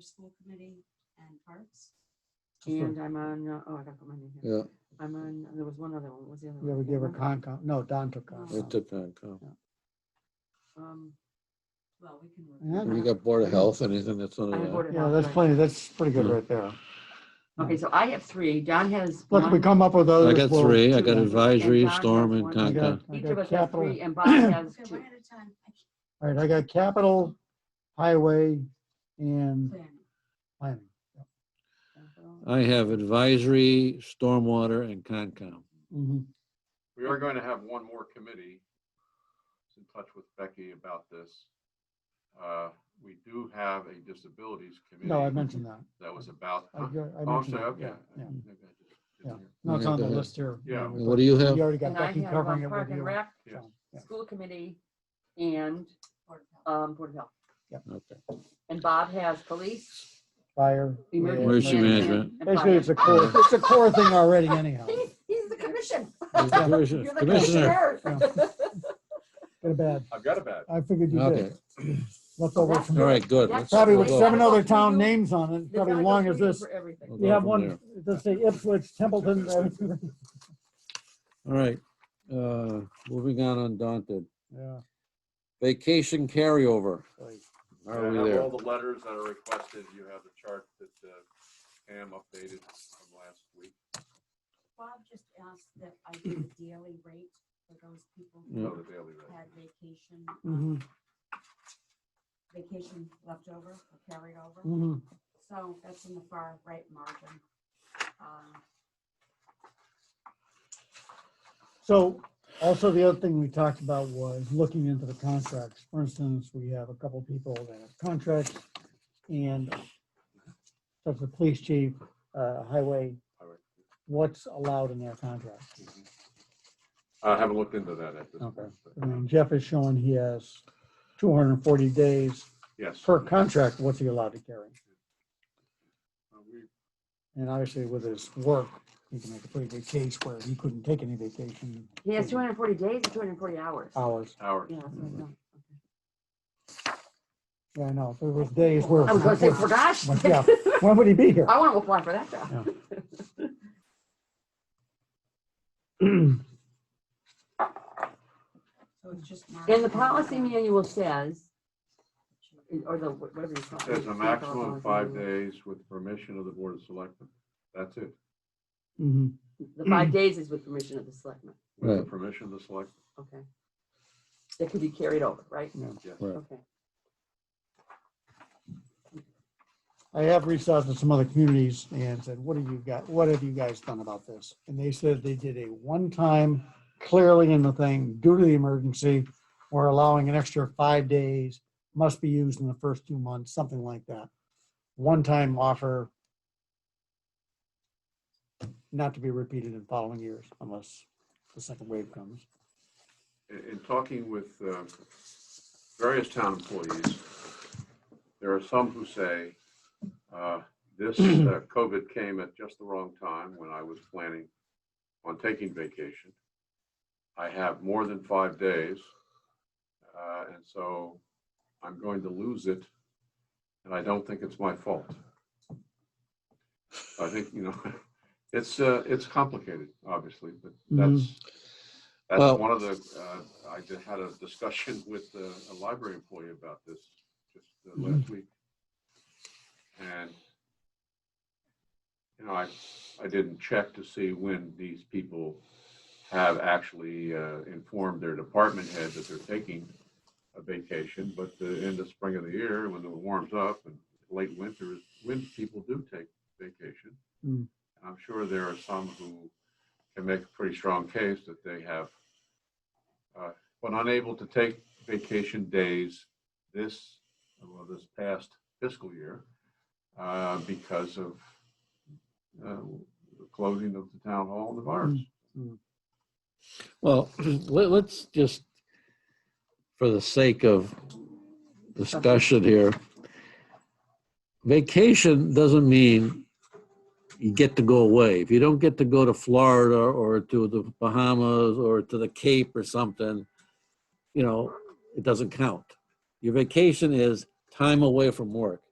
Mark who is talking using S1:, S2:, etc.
S1: School Committee and Parks.
S2: And
S3: Sure.
S2: I'm on, uh, oh, I gotta put my name here.
S4: Yeah,
S2: I'm on, there was one other one, what was the other
S3: You
S2: one?
S3: ever give her
S2: Concom?
S3: Concom? No, Don took
S4: it
S3: Concom.
S4: depends. huh?
S2: Um,
S1: Well, we can. work
S3: Yeah.
S4: We got Board of Health, anything that's on
S2: I have
S4: that.
S2: Board of
S3: Yeah,
S2: Health,
S3: that's
S2: right.
S3: plenty, that's pretty good right there.
S2: Okay, so I have three. Don has.
S3: Look, we
S2: one,
S3: come up with others.
S4: I got
S3: we'll-
S4: three, I got
S2: And
S4: advisory,
S2: Don has
S4: storm and
S2: one.
S3: I got-
S4: Concom.
S3: I
S2: Each
S3: got
S2: of us have
S3: capital. Uh,
S2: three and Bob has
S1: Okay,
S2: two.
S1: one at a time. I keep
S3: All right, I got capital, highway,
S1: planning.
S3: and planning.
S4: I have advisory, stormwater and Concom.
S3: Mhm.
S5: We are going to have one more committee. I was In touch with Becky about this. Uh, We do have a disabilities committee.
S3: No, I mentioned that.
S5: That was about.
S3: I
S5: Oh,
S3: go- I
S5: I'm
S3: mentioned
S5: sorry,
S3: that,
S5: okay.
S3: yeah,
S5: I-
S3: yeah.
S5: maybe I just didn't hear.
S3: No, it's on the
S4: Yeah.
S3: list here.
S5: Yeah.
S3: We
S4: What do you have?
S3: we already got
S2: And I
S3: Becky
S2: have
S3: covering
S2: um,
S3: it with
S2: Park and
S3: you.
S2: Rec,
S5: Yeah.
S3: so, yeah.
S2: School Committee, and
S1: Board of Health.
S2: um, Board of Health.
S4: Okay.
S2: And Bob has police.
S3: Fire.
S4: Emergency management.
S2: and
S3: Basically, it's a core,
S2: fire. Oh,
S3: it's a core thing already anyhow.
S2: He's, he's the commission.
S4: Commissioner-
S2: You're the
S4: Commissioner,
S2: commissioner.
S3: Good or bad.
S5: I've got a bad.
S3: I figured you
S4: okay,
S3: did. Leftover
S2: That's
S3: from,
S4: all right, good.
S2: That's-
S4: Let's
S3: probably with
S4: we'll go.
S3: seven oh- other
S2: That's
S3: town names on it, probably
S2: That's
S3: long
S2: how
S3: as
S2: it goes
S3: this.
S2: for everything.
S4: We'll
S3: You
S4: go
S3: have
S4: from
S3: one,
S4: there.
S3: let's say Ipswich, Templeton, everything.
S4: All right, uh, moving on undaunted.
S3: Yeah.
S4: Vacation carryover.
S3: right.
S5: I
S4: Are we
S5: have
S4: there?
S5: all the letters that are requested. You have the chart that uh, Pam updated from last week.
S1: Bob just asked that I do the daily rate for those people
S4: Yeah.
S5: Go
S1: who
S5: to daily rate.
S1: had vacation, um,
S3: Mhm,
S1: vacation left over or carried over.
S3: mhm.
S1: So that's in the far right margin. Um,
S3: So also the other thing we talked about was looking into the contracts. For instance, we have a couple people that have contracts and such the police chief, uh, highway,
S5: Highway.
S3: what's allowed in their contract?
S5: Mm-hmm. I haven't looked into that at this
S3: Okay. Um,
S5: point. but
S3: I mean, Jeff is showing he has two hundred and forty days
S5: Yes.
S3: per contract, what's he allowed to carry?
S5: Uh, we-
S3: And obviously with his work, he can make a pretty good case where he couldn't take any vacation
S2: He has two hundred and forty days and two hundred and forty hours.
S3: hours.
S5: Our,
S2: Yeah, that's what I thought.
S3: Yeah, I know, there was days where.
S2: I was gonna say, for gosh.
S3: Well, yeah. When would he be here?
S2: I want to apply for that job.
S1: So it's just. marked
S2: And the
S1: down
S2: policy
S1: there.
S2: manual says, or the, whatever you call it.
S5: there's a
S2: it's
S5: maximum
S2: policy
S5: of five
S2: manual.
S5: days with permission of the Board of Selectmen. That's it.
S3: Mhm.
S2: The five days is with permission of the selectmen,
S5: With the
S4: Right.
S5: permission of the select.
S2: okay? That could be carried over, right?
S5: Yes.
S4: Right.
S2: Okay.
S3: I have reached out to some other communities and said, what have you got, what have you guys done about this? And they said they did a one-time, clearly in the thing, due to the emergency, we're allowing an extra five days, must be used in the first two months, something like that. One-time offer. Not to be repeated in following years unless the second wave comes.
S5: in, in talking with uh, various town employees, there are some who say, uh, this uh, COVID came at just the wrong time when I was planning on taking vacation. I have more than five days. uh, And so I'm going to lose it. And I don't think it's my fault. I think, you know, it's, uh, it's complicated, obviously, but that's,
S4: Well-
S5: that's one of the, uh, I just had a discussion with uh, a library employee about this just uh, last week. And, you know, I, I didn't check to see when these people have actually uh, informed their department head that they're taking a vacation, but the end of spring of the year, when it warms up and late winter is when people do take vacation.
S3: Mm.
S5: And I'm sure there are some who can make a pretty strong case that they have uh, been unable to take vacation days this, well, this past fiscal year uh, because of uh, the closing of the town hall and the virus.
S4: Well, let, let's just, for the sake of discussion here, vacation doesn't mean you get to go away. If you don't get to go to Florida or to the Bahamas or to the Cape or something, you know, it doesn't count. Your vacation is time away from work.